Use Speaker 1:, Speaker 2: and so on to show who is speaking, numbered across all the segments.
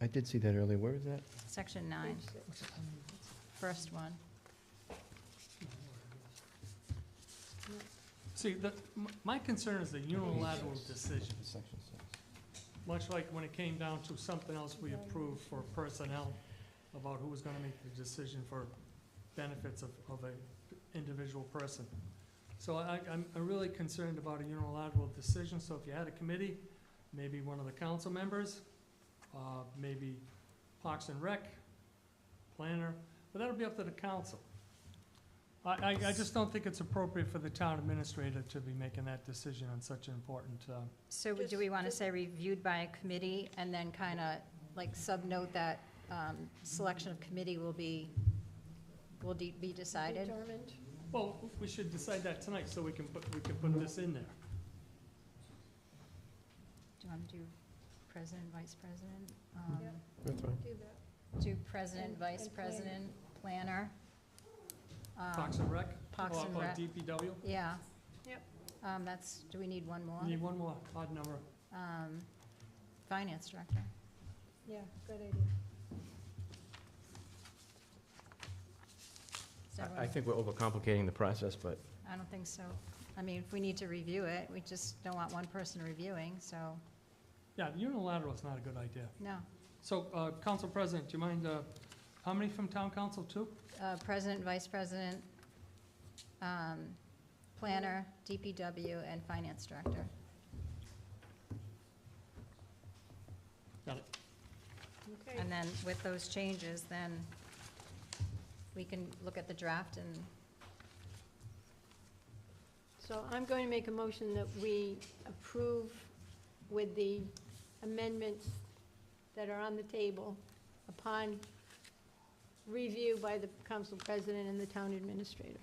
Speaker 1: I did see that earlier. Where is that?
Speaker 2: Section nine, first one.
Speaker 3: See, the, m- my concern is the unilateral decision,
Speaker 1: Section six.
Speaker 3: much like when it came down to something else we approved for personnel about who was gonna make the decision for benefits of, of a individual person. So I, I'm, I'm really concerned about a unilateral decision, so if you had a committee, maybe one of the council members, uh, maybe Parks and Rec, planner, but that'll be up to the council. I, I, I just don't think it's appropriate for the town administrator to be making that decision on such an important, uh,
Speaker 2: So do we want to say reviewed by a committee and then kind of like subnote that um, selection of committee will be, will de- be decided?
Speaker 4: Determined.
Speaker 3: Well, we should decide that tonight, so we can put, we can put this in there.
Speaker 2: Do you want to do president, vice president? um,
Speaker 4: Yeah.
Speaker 1: That's fine.
Speaker 4: Do that.
Speaker 2: Do president,
Speaker 4: And-
Speaker 2: vice
Speaker 4: and planner.
Speaker 2: president, planner? um,
Speaker 3: Parks and Rec?
Speaker 2: Parks
Speaker 3: or-
Speaker 2: and
Speaker 3: or
Speaker 2: Rec.
Speaker 3: DPW?
Speaker 2: Yeah.
Speaker 4: Yep.
Speaker 2: Um, That's, do we need one more?
Speaker 3: Need one more odd number.
Speaker 2: Um, Finance director.
Speaker 4: Yeah, good idea.
Speaker 2: Is that
Speaker 1: I
Speaker 2: right?
Speaker 1: think we're overcomplicating the process, but
Speaker 2: I don't think so. I mean, if we need to review it, we just don't want one person reviewing, so,
Speaker 3: Yeah, unilateral is not a good idea.
Speaker 2: no.
Speaker 3: So, uh, Council President, do you mind, uh, how many from Town Council, two?
Speaker 2: Uh, President, Vice President, um, Planner, DPW, and Finance Director.
Speaker 4: Okay.
Speaker 2: And then with those changes, then we can look at the draft and,
Speaker 4: So I'm going to make a motion that we approve with the amendments that are on the table upon review by the council president and the town administrator.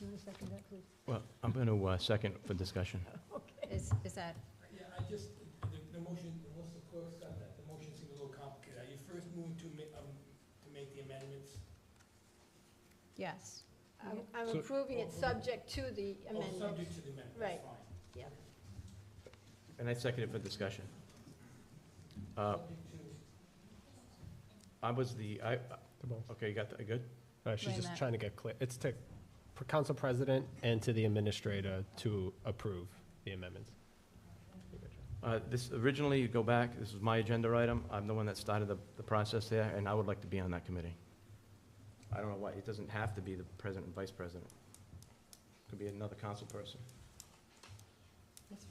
Speaker 4: You want to second that, please?
Speaker 1: Well, I'm going to second for discussion.
Speaker 4: Okay.
Speaker 2: is, is that,
Speaker 5: Yeah, I just, the, the motion, once the clerk's got uh, that, the motion seems a little complicated. Are you first moving to ma- um, to make the amendments?
Speaker 2: yes.
Speaker 4: I'm- I'm
Speaker 1: So-
Speaker 4: approving it subject to the
Speaker 5: Oh,
Speaker 4: amendment.
Speaker 5: subject to the amendment,
Speaker 4: Right.
Speaker 5: that's fine.
Speaker 1: And I second it for discussion. Uh,
Speaker 5: Subject to,
Speaker 1: I was the, I, okay, you got that, good?
Speaker 6: Uh,
Speaker 2: Wait a
Speaker 6: She's just
Speaker 2: minute.
Speaker 6: trying to get clear. It's to for council president and to the administrator to approve the amendments.
Speaker 1: Uh, This, originally, you go back, this was my agenda item. I'm the one that started the, the process there, and I would like to be on that committee. I don't know why, it doesn't have to be the president and vice president. Could be another council person.
Speaker 3: That's fine.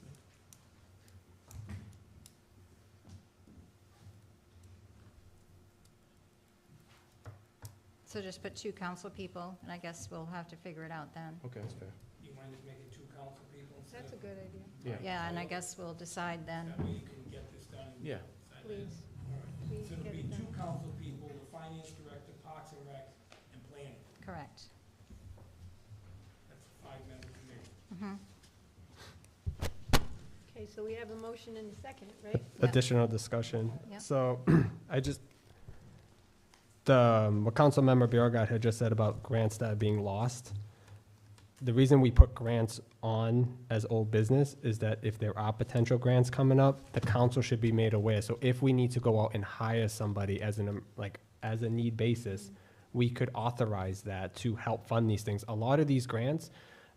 Speaker 2: So just put two council people, and I guess we'll have to figure it out then.
Speaker 1: Okay, that's fair.
Speaker 5: you mind just making two council people instead
Speaker 4: That's a
Speaker 5: of?
Speaker 4: good idea,
Speaker 1: Yeah.
Speaker 2: Yeah, and I guess we'll decide then.
Speaker 5: That way you can get this done.
Speaker 1: Yeah,
Speaker 5: inside the-
Speaker 4: please.
Speaker 5: All right.
Speaker 4: Please
Speaker 5: So it'll
Speaker 4: get
Speaker 5: be
Speaker 4: it done.
Speaker 5: two council people, the finance director, parks and rec, and planning.
Speaker 2: Correct.
Speaker 5: That's a five-member committee.
Speaker 2: Mhm.
Speaker 4: Okay, so we have a motion and a second, right?
Speaker 2: Yeah.
Speaker 6: Additional discussion.
Speaker 2: Yeah.
Speaker 6: So I just, the, um, what Councilmember Bjorgat had just said about grants that are being lost. The reason we put grants on as old business is that if there are potential grants coming up, the council should be made aware. So if we need to go out and hire somebody as an, um, like, as a need basis, we could authorize that to help fund these things. A lot of these grants,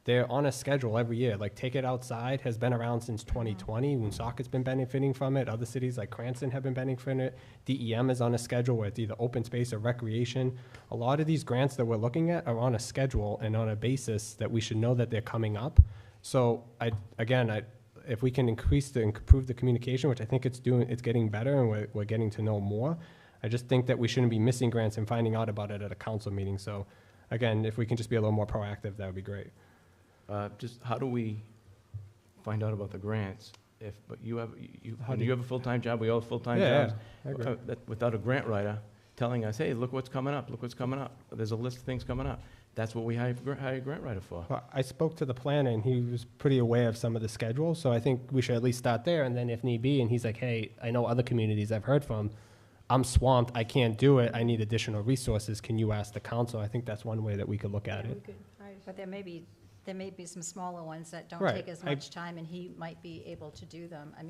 Speaker 6: they're on a schedule every year. Like Take It Outside has been around since 2020. Woonsocket's been benefiting from it. Other cities like Cranston have been benefiting it. DEM is on a schedule with either open space or recreation. A lot of these grants that we're looking at are on a schedule and on a basis that we should know that they're coming up. So I, again, I, if we can increase the, improve the communication, which I think it's doing, it's getting better and we're, we're getting to know more. I just think that we shouldn't be missing grants and finding out about it at a council meeting. So again, if we can just be a little more proactive, that would be great.
Speaker 1: Uh, Just how do we find out about the grants? If, but you have, you,
Speaker 6: How do
Speaker 1: you have a full-time job, we all have full-time
Speaker 6: Yeah, yeah,
Speaker 1: jobs.
Speaker 6: I agree.
Speaker 1: Uh, that- Without a grant writer telling us, hey, look what's coming up, look what's coming up. There's a list of things coming up. That's what we hire, gr- hire a grant writer for.
Speaker 6: Well, I spoke to the planner, and he was pretty aware of some of the schedule, so I think we should at least start there, and then if need be, and he's like, hey, I know other communities I've heard from, I'm swamped, I can't do it, I need additional resources, can you ask the council? I think that's one way that we could look at
Speaker 4: Yeah, we
Speaker 6: it.
Speaker 4: could hire
Speaker 2: But there may be, there may be some smaller ones that don't
Speaker 6: Right,
Speaker 2: take as
Speaker 6: I-
Speaker 2: much time, and he might be able to do them. I mean,